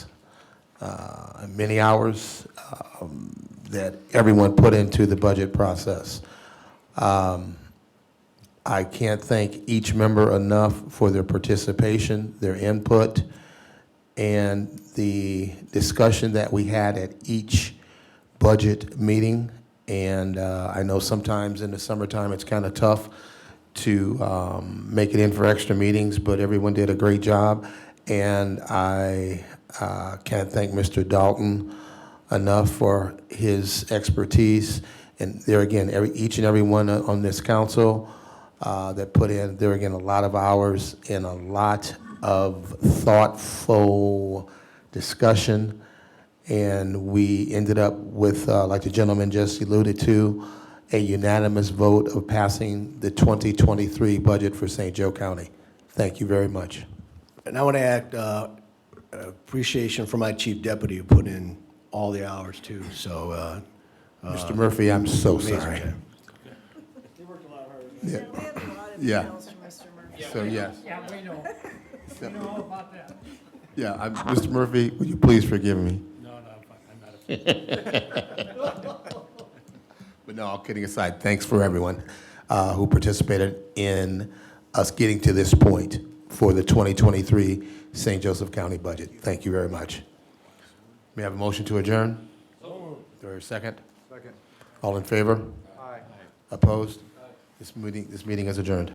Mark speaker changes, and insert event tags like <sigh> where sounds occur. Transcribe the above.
Speaker 1: uh, many hours um, that everyone put into the budget process. Um, I can't thank each member enough for their participation, their input, and the discussion that we had at each budget meeting. And uh, I know sometimes in the summertime, it's kind of tough to um, make it in for extra meetings, but everyone did a great job. And I uh, can't thank Mr. Dalton enough for his expertise. And there again, every, each and every one on this council uh, that put in, there again, a lot of hours and a lot of thoughtful discussion. And we ended up with, uh, like the gentleman just alluded to, a unanimous vote of passing the 2023 budget for St. Joe County. Thank you very much.
Speaker 2: And I want to act uh, appreciation for my chief deputy who put in all the hours too, so. uh,
Speaker 1: Mr. Murphy, I'm so
Speaker 2: amazing
Speaker 1: sorry.
Speaker 2: job.
Speaker 1: Yeah.
Speaker 3: We have a lot of
Speaker 1: Yeah.
Speaker 3: emails from Mr. Murphy.
Speaker 1: So, yes.
Speaker 4: Yeah, we
Speaker 1: <laughs>
Speaker 4: know. We know all about that.
Speaker 1: Yeah, I'm- Mr. Murphy, would you please forgive me?
Speaker 4: No, no, I'm not a
Speaker 1: <laughs> But no, all kidding aside, thanks for everyone uh, who participated in us getting to this point for the 2023 St. Joseph County budget. Thank you very much. May I have a motion to adjourn? So moved. second? Second. All in favor? Aye. Opposed? This meeting, this meeting is adjourned.